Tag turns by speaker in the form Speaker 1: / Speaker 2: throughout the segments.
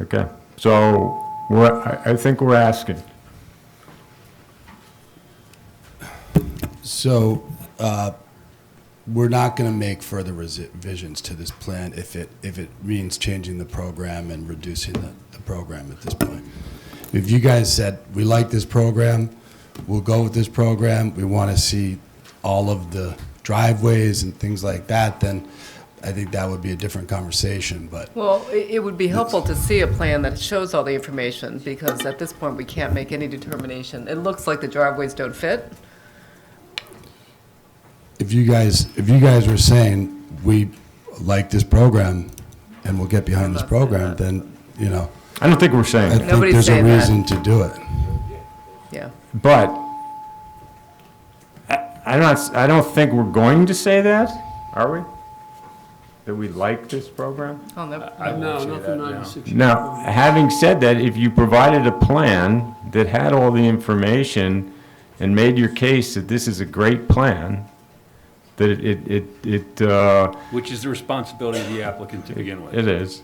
Speaker 1: Okay, so we're, I, I think we're asking.
Speaker 2: So, uh, we're not going to make further resi- revisions to this plan if it, if it means changing the program and reducing the, the program at this point. If you guys said, we like this program, we'll go with this program, we want to see all of the driveways and things like that, then I think that would be a different conversation, but
Speaker 3: Well, i- it would be helpful to see a plan that shows all the information, because at this point, we can't make any determination. It looks like the driveways don't fit.
Speaker 2: if you guys, if you guys were saying, we like this program and we'll get behind this
Speaker 3: I'm not saying
Speaker 2: program,
Speaker 3: that.
Speaker 2: then, you know,
Speaker 1: I don't think we're
Speaker 2: I
Speaker 1: saying that,
Speaker 2: think
Speaker 3: Nobody's
Speaker 2: there's a
Speaker 3: saying that.
Speaker 2: reason to do it.
Speaker 3: Yeah.
Speaker 1: but I, I don't, I don't think we're going to say that, are we? That we like this program?
Speaker 3: I'll never-
Speaker 4: No, nothing under six.
Speaker 1: Now, having said that, if you provided a plan that had all the information and made your case that this is a great plan, that it, it, it, it, uh,
Speaker 4: Which is the responsibility of the applicant to begin with.
Speaker 1: It is.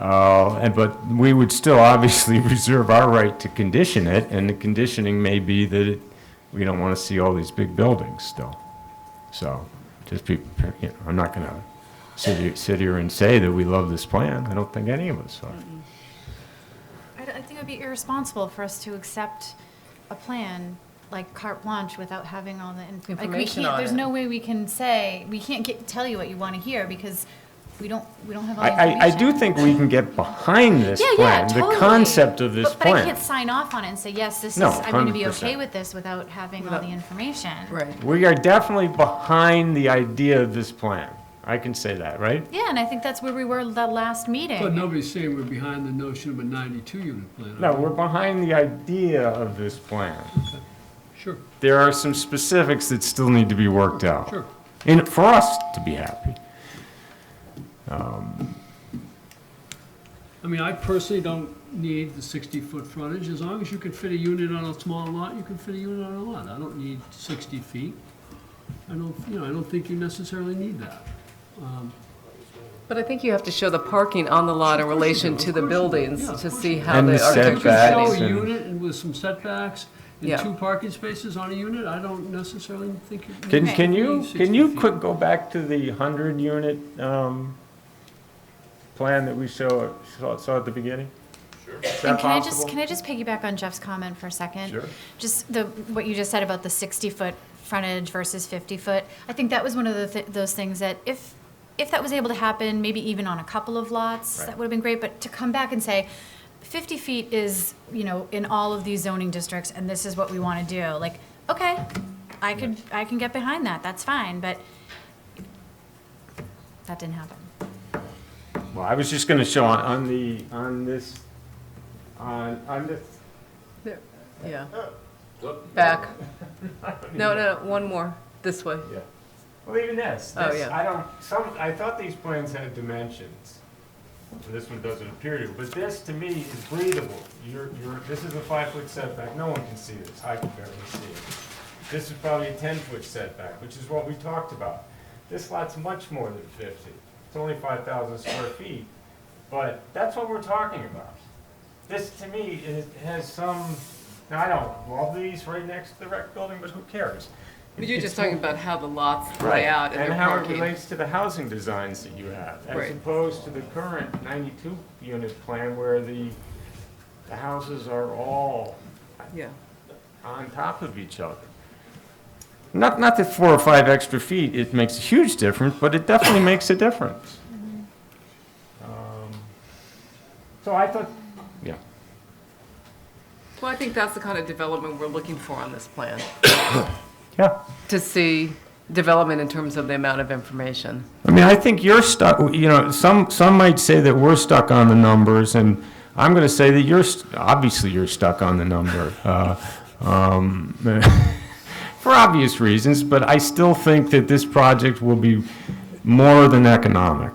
Speaker 1: Uh, And, but we would still obviously reserve our right to condition it, and the conditioning may be that it, we don't want to see all these big buildings still. So, just be, prepared, you know, I'm not going to sit here, sit here and say that we love this plan. I don't think any of us are.
Speaker 5: Mm-hmm. I don't- I think it would be irresponsible for us to accept a plan like carte blanche without having all the inf- like, we
Speaker 3: Information
Speaker 5: can't-
Speaker 3: on
Speaker 5: There's
Speaker 3: it.
Speaker 5: no way we can say, we can't get, tell you what you want to hear because we don't, we don't have all the
Speaker 1: I, I, I do
Speaker 5: information.
Speaker 1: think we can get behind this
Speaker 5: Yeah, yeah,
Speaker 1: plan,
Speaker 5: totally.
Speaker 1: the concept of this
Speaker 5: But- But I
Speaker 1: plan.
Speaker 5: can't sign off on it and say, yes, this is,
Speaker 1: No,
Speaker 5: I'm going to be
Speaker 1: 100%.
Speaker 5: okay with this without having all
Speaker 3: Without-
Speaker 5: the information.
Speaker 3: Right.
Speaker 1: We are definitely behind the idea of this plan. I can say that, right?
Speaker 5: Yeah, and I think that's where we were the last meeting.
Speaker 6: But nobody's saying we're behind the notion of a 92-unit plan.
Speaker 1: No, we're behind the idea of this plan.
Speaker 6: Sure,
Speaker 1: there are some specifics that still need to be worked out.
Speaker 6: sure.
Speaker 1: And for us to be happy.
Speaker 6: I mean, I personally don't need the 60-foot frontage. As long as you can fit a unit on a small lot, you can fit a unit on a lot. I don't need 60 feet. I don't, you know, I don't think you necessarily need that.
Speaker 3: But I think you have to show the parking on the lot in relation to the buildings
Speaker 6: Yeah, of
Speaker 3: to
Speaker 6: course
Speaker 3: see
Speaker 6: you do.
Speaker 3: how
Speaker 1: And
Speaker 3: the
Speaker 1: the
Speaker 6: If you
Speaker 3: architecture
Speaker 1: setbacks.
Speaker 6: show
Speaker 3: is
Speaker 6: a
Speaker 1: and-
Speaker 6: unit and with some setbacks
Speaker 3: Yeah.
Speaker 6: and two parking spaces on a unit, I don't necessarily think. you
Speaker 1: Can,
Speaker 6: need
Speaker 1: can you,
Speaker 6: 60
Speaker 1: can you
Speaker 6: feet.
Speaker 1: quick go back to the hundred unit, um, plan that we saw, saw saw at the beginning? Sure. Is
Speaker 5: And
Speaker 1: that
Speaker 5: can I just,
Speaker 1: possible?
Speaker 5: can I just piggyback on Jeff's comment for a second?
Speaker 1: Sure.
Speaker 5: Just the, what you just said about the 60-foot frontage versus 50-foot. I think that was one of the, thi- those things that if, if that was able to happen, maybe even on a couple of lots,
Speaker 1: Right.
Speaker 5: that would have been great, but to come back and say, 50 feet is, you know, in all of these zoning districts, and this is what we want to do, like, okay, I could, I can get behind that, that's fine, but that didn't happen.
Speaker 1: Well, I was just gonna show on, on the, on this, on, on this,
Speaker 3: Yeah. Back. No, no, no, one more, this way.
Speaker 1: well, even this,
Speaker 3: Oh,
Speaker 1: this,
Speaker 3: yeah.
Speaker 1: I don't, some, I thought these plans had dimensions. And This one doesn't appear to, but this to me is breathable. You're, you're, this is a five-foot setback, no one can see this, I can barely see it. This is probably a ten-foot setback, which is what we talked about. This lot's much more than fifty, it's only five thousand square feet, but that's what we're talking about. This to me is, has some, now I don't love these right next to the rec building, but who cares?
Speaker 3: But You're
Speaker 1: It's
Speaker 3: just talking about how the lots
Speaker 1: Right,
Speaker 3: lay out and their
Speaker 1: how it
Speaker 3: parking.
Speaker 1: relates to the housing designs that you have, as
Speaker 3: Right.
Speaker 1: opposed to the current ninety-two unit plan where the, the houses are all
Speaker 3: Yeah.
Speaker 1: on top of each other. Not, not that four or five extra feet, it makes a huge difference, but it definitely makes a difference. Um, So I thought, yeah,
Speaker 3: Well, I think that's the kind of development we're looking for on this plan,
Speaker 1: yeah.
Speaker 3: to see development in terms of the amount of information.
Speaker 1: I mean, I think you're stuck, you know, some, some might say that we're stuck on the numbers, and I'm going to say that you're, st- obviously you're stuck on the number, uh, um, for obvious reasons, but I still think that this project will be more than economic.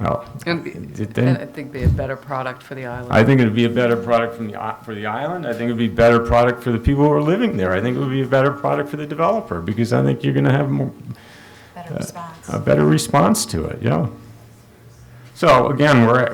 Speaker 1: Well,
Speaker 3: And be-
Speaker 1: it
Speaker 3: and
Speaker 1: didn't-
Speaker 3: I think be a better product for the island.
Speaker 1: I think it'd be a better product from the, i- for the island, I think it'd be a better product for the people who are living there, I think it would be a better product for the developer, because I think you're going to have more,
Speaker 5: Better response.
Speaker 1: a better response to it, yeah. So again, we're,